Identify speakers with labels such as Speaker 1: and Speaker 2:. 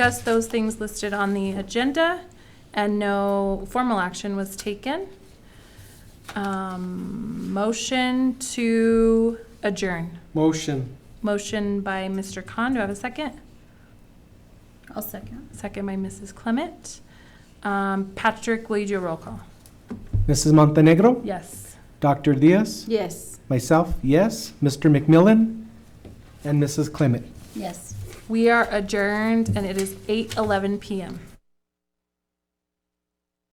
Speaker 1: discussed those things listed on the agenda, and no formal action was taken. Um, Motion to adjourn.
Speaker 2: Motion.
Speaker 1: Motion by Mr. Khan, do I have a second?
Speaker 3: I'll second.
Speaker 1: Second by Mrs. Clement. Um, Patrick, will you do a roll call?
Speaker 2: Mrs. Montenegro?
Speaker 1: Yes.
Speaker 2: Dr. Diaz?
Speaker 3: Yes.
Speaker 2: Myself, yes. Mr. McMillan? And Mrs. Clement?
Speaker 3: Yes.
Speaker 1: We are adjourned, and it is 8:11 PM.